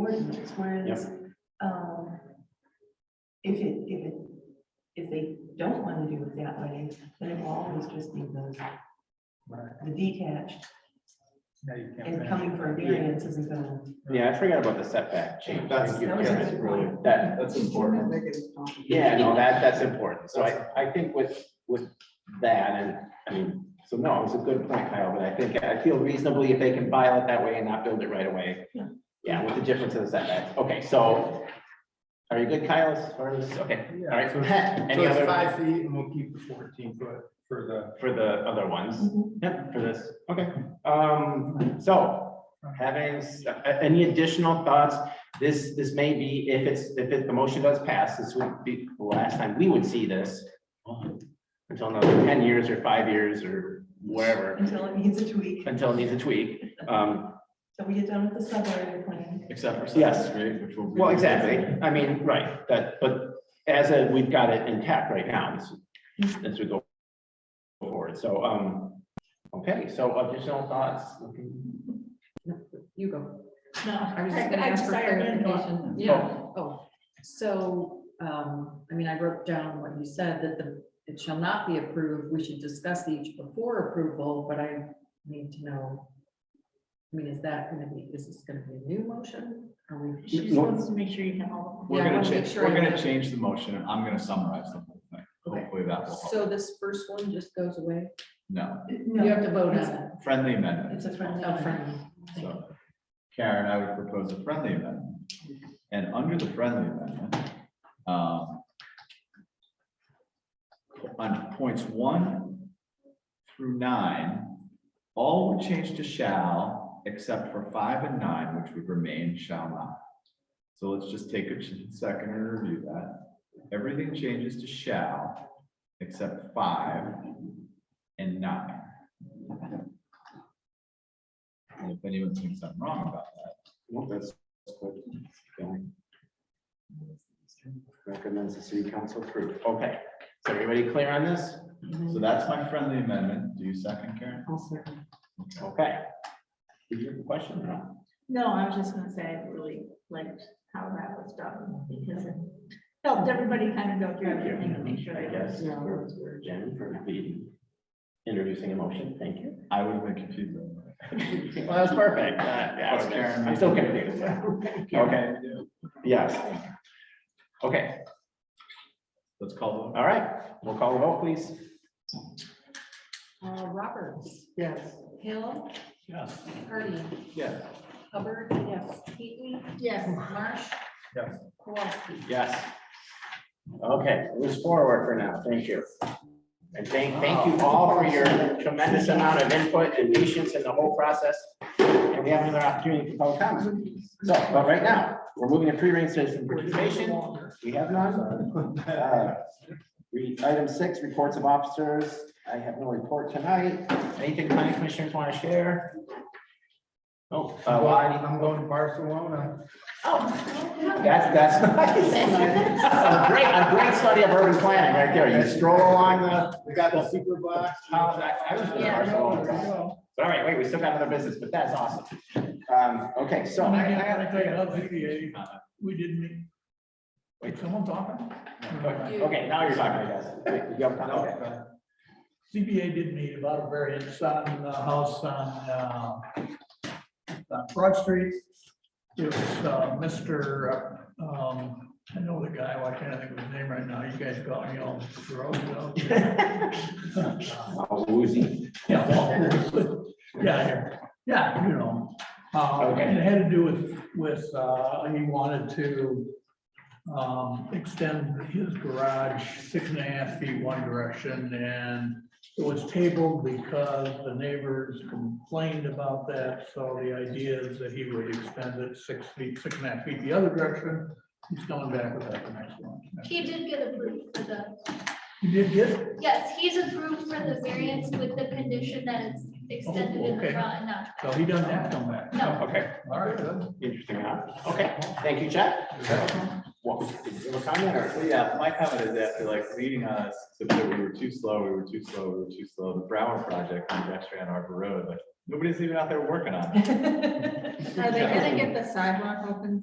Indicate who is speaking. Speaker 1: ordinance, whereas, um, if it, if it, if they don't want to do it that way, then it will always just be the,
Speaker 2: Right.
Speaker 1: the detached
Speaker 2: Yeah, you can't
Speaker 1: and
Speaker 2: finish.
Speaker 1: coming for a variance isn't gonna.
Speaker 3: Yeah, I forgot about the setback change.
Speaker 4: That's-
Speaker 3: Thank you,
Speaker 1: That was a
Speaker 3: Karen.
Speaker 1: good point.
Speaker 3: That, uh,
Speaker 4: That's important.
Speaker 3: yeah, no, that, that's important. So I, I think with, with that and, I mean, so no, it's a good point, Kyle, but I think, I feel reasonably if they can file it that way and not build it right away.
Speaker 1: Yeah.
Speaker 3: Yeah, with the difference of the setbacks. Okay, so are you good, Kyle, as far as, okay, all
Speaker 2: Yeah,
Speaker 3: right.
Speaker 2: so
Speaker 3: Any
Speaker 2: so it's
Speaker 3: other
Speaker 2: five feet and we'll keep the fourteen foot for the.
Speaker 3: for the other ones?
Speaker 1: Mhm.
Speaker 2: Mm-hmm.
Speaker 3: Yep, for this, okay. Um, so having, s- a- any additional thoughts? This, this may be, if it's, if it- the motion does pass, this would be the last time we would see this. Until another ten years or five years or wherever,
Speaker 1: Until it needs a tweak,
Speaker 3: until it needs a tweak. Um,
Speaker 1: so we get done with the subarea plan.
Speaker 4: Except for.
Speaker 3: Yes.
Speaker 4: sentence three, which will be-
Speaker 3: well, exactly. I mean, right, that, but as a, we've got it intact right now, as, as we go forward. So, um, okay, so additional thoughts?
Speaker 5: You go.
Speaker 6: No,
Speaker 5: I was just gonna ask for clarification. Oh, so, um, I mean, I wrote down what you said, that the, it shall not be approved. We should discuss each before approval, but I need to know. I mean, is that gonna be, is this gonna be a new motion? Are we?
Speaker 6: She just wants to make sure you have
Speaker 1: Uh,
Speaker 6: all
Speaker 5: Yeah,
Speaker 4: We're
Speaker 5: I
Speaker 4: gonna
Speaker 5: wanna make
Speaker 4: change,
Speaker 5: sure
Speaker 4: we're
Speaker 5: I
Speaker 4: gonna
Speaker 5: have-
Speaker 4: change the motion and I'm gonna summarize the whole thing.
Speaker 5: Okay.
Speaker 4: Hopefully that will help.
Speaker 5: So this first one just goes away?
Speaker 4: No,
Speaker 5: You have
Speaker 1: No,
Speaker 5: to vote on
Speaker 1: it's-
Speaker 5: it.
Speaker 4: friendly amendment.
Speaker 1: it's a friendly.
Speaker 5: Oh, friendly.
Speaker 4: So Karen, I would propose a friendly amendment. And under the friendly amendment, um, on points one through nine, all would change to shall, except for five and nine, which would remain shall not. So let's just take a ch- second and review that. Everything changes to shall, except five and nine. And if anyone thinks I'm wrong about that,
Speaker 3: Well, that's good. Going. Recommends the city council approve. Okay, is everybody clear on this?
Speaker 4: so that's my friendly amendment. Do you second, Karen?
Speaker 5: Also,
Speaker 4: Okay.
Speaker 3: Okay. Did you have a question or not?
Speaker 6: No, I was just gonna say, I really liked how that was done, because it helped everybody kind of go through everything and make sure
Speaker 3: I
Speaker 6: they
Speaker 3: guess,
Speaker 6: just.
Speaker 5: No.
Speaker 3: we're we're Jen for leading, introducing a motion, thank you.
Speaker 4: I would have been confused. on that.
Speaker 3: Well, that's perfect. Uh, yeah, I was- I'm still confused. Okay, yes. Okay,
Speaker 4: Let's call
Speaker 3: all right, we'll call the vote, please.
Speaker 5: Uh, Roberts,
Speaker 1: Yes.
Speaker 5: Hill,
Speaker 2: Yes.
Speaker 5: Hardy,
Speaker 4: it. Yes.
Speaker 5: Hubbard, yes, Heaton,
Speaker 6: Yes.
Speaker 5: Marsh.
Speaker 2: Yes.
Speaker 5: Kowalski.
Speaker 3: Yes. Okay, move forward for now. Thank you. And thank, thank you all for your tremendous amount of input and patience in the whole process. And we have another opportunity for public comment. So, but right now, we're moving to pre-arranged citizen participation. We have none. Uh, re- Item six, reports of officers. I have no report tonight. Anything county commissioners want to share? Oh, uh,
Speaker 2: Well,
Speaker 3: Lonnie.
Speaker 2: I'm going to Barcelona.
Speaker 3: That's, that's nice. A Great, a great study of urban planning right there. You stroll along the.
Speaker 2: We got the super box.
Speaker 3: Oh, I- I was gonna
Speaker 6: Yeah.
Speaker 3: Barcelona. All right, wait, we still got another business, but that's awesome. Um, okay, so.
Speaker 7: I I gotta tell you, that ZBA, we didn't. Wait, someone talking?
Speaker 3: Okay, now you're talking, I guess. Wait, you have- okay.
Speaker 7: ZBA did meet about a variance on the house on, uh, on Broad Street. It was, uh, Mr., um, I know the guy, why can't I think of his name right now? You guys call me all gross, you know?
Speaker 3: Oh, Woozy.
Speaker 7: Yeah, well, yeah, yeah, yeah, you know, uh, and it had to do with, with, uh, he wanted to um, extend his garage six and a half feet one direction, and it was tabled because the neighbors complained about that, so the idea is that he would extend it six feet, six and a half feet the other direction. He's coming back with that the next one.
Speaker 8: He did get approved for the,
Speaker 7: You did get,
Speaker 8: yes, he's approved for the variance with the condition that it's extended in
Speaker 7: okay.
Speaker 8: the front and not
Speaker 7: so he doesn't have to come back.
Speaker 8: No.
Speaker 3: Okay,
Speaker 7: All right, good.
Speaker 3: interesting enough. Okay, thank you, Chad. What, did you have a comment or?
Speaker 4: Well, yeah, my comment is after like leading us to that we were too slow, we were too slow, we were too slow, the Brower project on Dexter and Arbor Road, like, nobody's even out there working on it.
Speaker 5: Are they gonna get the sidewalk open